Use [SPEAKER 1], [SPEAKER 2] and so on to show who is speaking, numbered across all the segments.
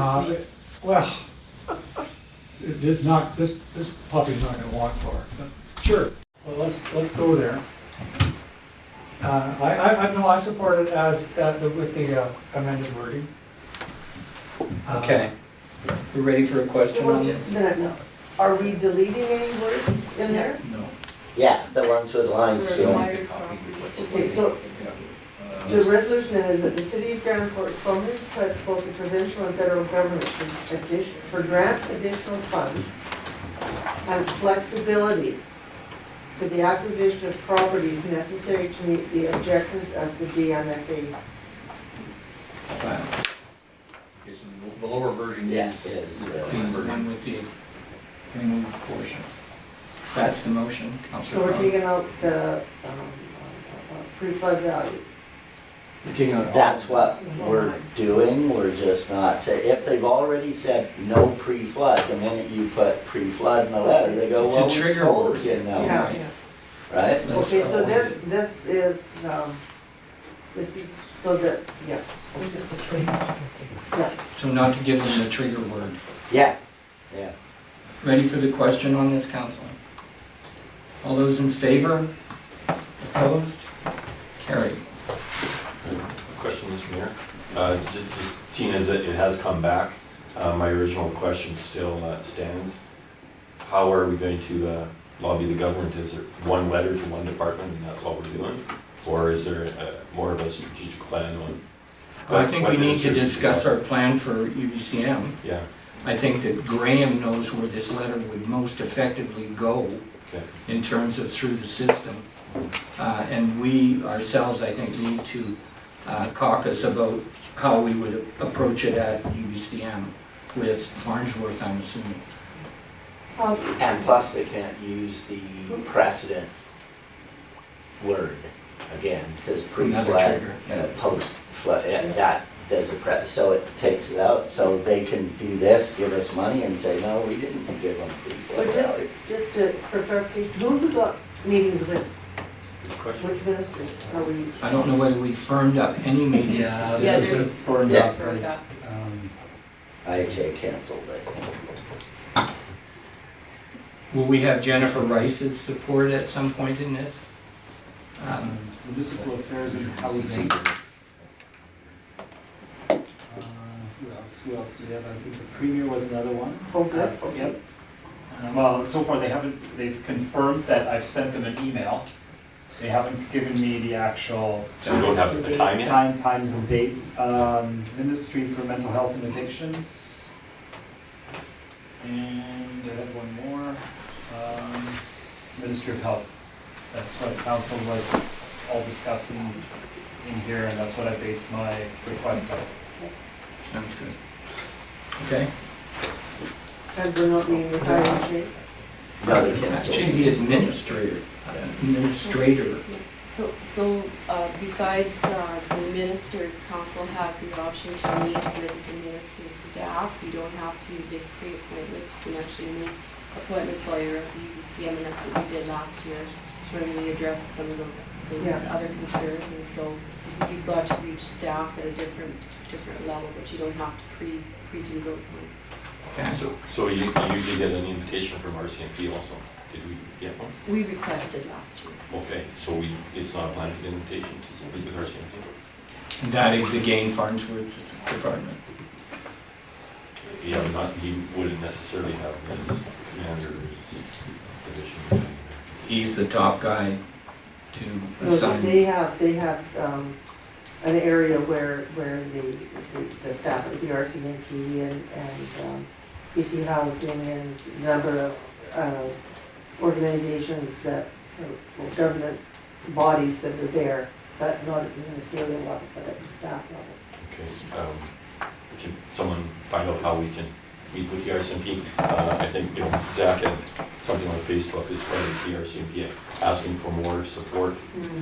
[SPEAKER 1] Uh, Well, it is not, this, this puppy's not gonna want far, but sure, well, let's, let's go there. Uh, I, I, I know I support it as, uh, the- with the uh, amended wording. Uh,
[SPEAKER 2] Okay. We ready for a question
[SPEAKER 3] Well,
[SPEAKER 2] on
[SPEAKER 3] just
[SPEAKER 2] this?
[SPEAKER 3] a minute, no. Are we deleting any words in there?
[SPEAKER 4] No.
[SPEAKER 5] Yeah, the ones with lines
[SPEAKER 3] For
[SPEAKER 5] through them.
[SPEAKER 3] acquired properties. Okay, so the resolution then is that the city of Grand Forks formally requests both the provincial and federal government for addition, for grant additional funds and flexibility for the acquisition of properties necessary to meet the objectives of the DMFA.
[SPEAKER 4] Okay, so the- the lower version
[SPEAKER 5] Yeah,
[SPEAKER 4] is.
[SPEAKER 5] is
[SPEAKER 4] the
[SPEAKER 5] the-
[SPEAKER 4] Clean version.
[SPEAKER 6] One with the removed portion. That's the motion,
[SPEAKER 3] So
[SPEAKER 6] Counselor
[SPEAKER 3] we're
[SPEAKER 6] Crum.
[SPEAKER 3] taking out the, um, uh, uh, pre-flood value.
[SPEAKER 5] That's what we're doing, we're just not, say, if they've already said no pre-flood, the minute you put pre-flood in the letter, they go,
[SPEAKER 2] It's a
[SPEAKER 5] well, we
[SPEAKER 2] trigger
[SPEAKER 5] told
[SPEAKER 2] word.
[SPEAKER 5] you no,
[SPEAKER 3] Yeah.
[SPEAKER 6] Right.
[SPEAKER 5] right?
[SPEAKER 6] That's
[SPEAKER 3] Okay, so
[SPEAKER 6] all.
[SPEAKER 3] this, this is, um, this is so that, yeah. This is the trade.
[SPEAKER 2] So not to give them the trigger word.
[SPEAKER 5] Yeah, yeah.
[SPEAKER 2] Ready for the question on this, council? All those in favor? Opposed? Carried.
[SPEAKER 7] Question, Mr. Mayor. Uh, ju- Just seeing as it it has come back, uh, my original question still uh, stands. How are we going to uh, lobby the government? Is it one letter to one department and that's all we're doing? Or is there uh, more of a strategic plan on?
[SPEAKER 2] I think we
[SPEAKER 7] what
[SPEAKER 2] need to
[SPEAKER 7] ministers-
[SPEAKER 2] discuss our plan for UBCM.
[SPEAKER 7] Yeah,
[SPEAKER 2] I think that Graham knows where this letter would most effectively go
[SPEAKER 7] okay.
[SPEAKER 2] in terms of through the system. Uh, And we ourselves, I think, need to uh, caucus about how we would approach it at UBCM with Farnsworth, I'm assuming.
[SPEAKER 3] Um,
[SPEAKER 5] And plus, they can't use the precedent word again, because
[SPEAKER 2] Another
[SPEAKER 5] pre-flood,
[SPEAKER 2] trigger, yeah.
[SPEAKER 5] uh, post-flood, yeah, that does a pre, so it takes it out, so they can do this, give us money and say, no, we didn't give them
[SPEAKER 3] So
[SPEAKER 5] pre-flood
[SPEAKER 3] just,
[SPEAKER 5] value.
[SPEAKER 3] just to, for clarification, who we got meetings with,
[SPEAKER 7] Good question.
[SPEAKER 3] which ministers are we?
[SPEAKER 2] I don't know whether we firmed up any meetings.
[SPEAKER 8] Yeah,
[SPEAKER 2] specifically.
[SPEAKER 8] Uh, there's a bit for
[SPEAKER 5] Yeah.
[SPEAKER 8] that, right? Um,
[SPEAKER 5] IHA canceled, I think.
[SPEAKER 2] Will we have Jennifer Rice's support at some point in this? Um,
[SPEAKER 8] Municipal affairs and housing. Uh, Who else, who else do we have? I think the premier was another one.
[SPEAKER 3] Oh, good, okay.
[SPEAKER 8] Yep. Uh, Well, so far they haven't, they've confirmed that I've sent them an email. They haven't given me the actual.
[SPEAKER 7] So we don't have the time yet?
[SPEAKER 8] Time, times and dates, um, Ministry for Mental Health and Addictions. And I have one more, um, Ministry of Health. That's what council was all discussing in here, and that's what I based my requests on.
[SPEAKER 2] Sounds good. Okay.
[SPEAKER 3] And we're not meeting with IHA?
[SPEAKER 5] No, they
[SPEAKER 2] Actually,
[SPEAKER 5] canceled.
[SPEAKER 2] the administrator, administrator
[SPEAKER 9] So, so uh, besides uh, the ministers, council has the option to meet with the minister's staff. You don't have to make pre-appointments, you can actually make appointments while you're at the E UBCM, and that's what we did last year when we addressed some of those, those
[SPEAKER 3] Yeah.
[SPEAKER 9] other concerns. And so you've got to reach staff at a different, different level, but you don't have to pre, pre-do those ones.
[SPEAKER 2] Okay.
[SPEAKER 7] So- So you you usually get an invitation from RCMP also? Did we get one?
[SPEAKER 9] We requested last year.
[SPEAKER 7] Okay, so we, it's not a planned invitation to speak with RCMP?
[SPEAKER 2] And that is again Farnsworth Department.
[SPEAKER 7] Yeah, not, he wouldn't necessarily have his commander position.
[SPEAKER 2] He's the top guy to
[SPEAKER 3] No, they-
[SPEAKER 2] assign.
[SPEAKER 3] they have, they have, um, an area where, where the, the- the staff at the RCMP and, and, um, PC Housing and a number of, uh, organizations that, uh, or government bodies that are there, but not at the ministerial level, but at the staff level.
[SPEAKER 7] Okay, um, can someone find out how we can meet with the RCMP? Uh, I think, you know, Zach had something on Facebook as far as the RCMP asking for more support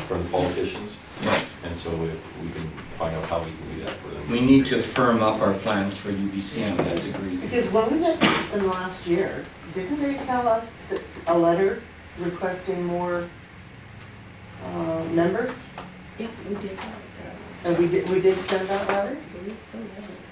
[SPEAKER 7] from the politicians,
[SPEAKER 2] Yes.
[SPEAKER 7] and so if we can find out how we can do that for them.
[SPEAKER 2] We need to firm up our plans for UBCM, that's agreed.
[SPEAKER 3] Because when we met in last year, didn't they tell us that a letter requesting more, uh, members?
[SPEAKER 9] Yeah, we did.
[SPEAKER 3] And we did, we did send that letter?
[SPEAKER 9] I believe so, yeah.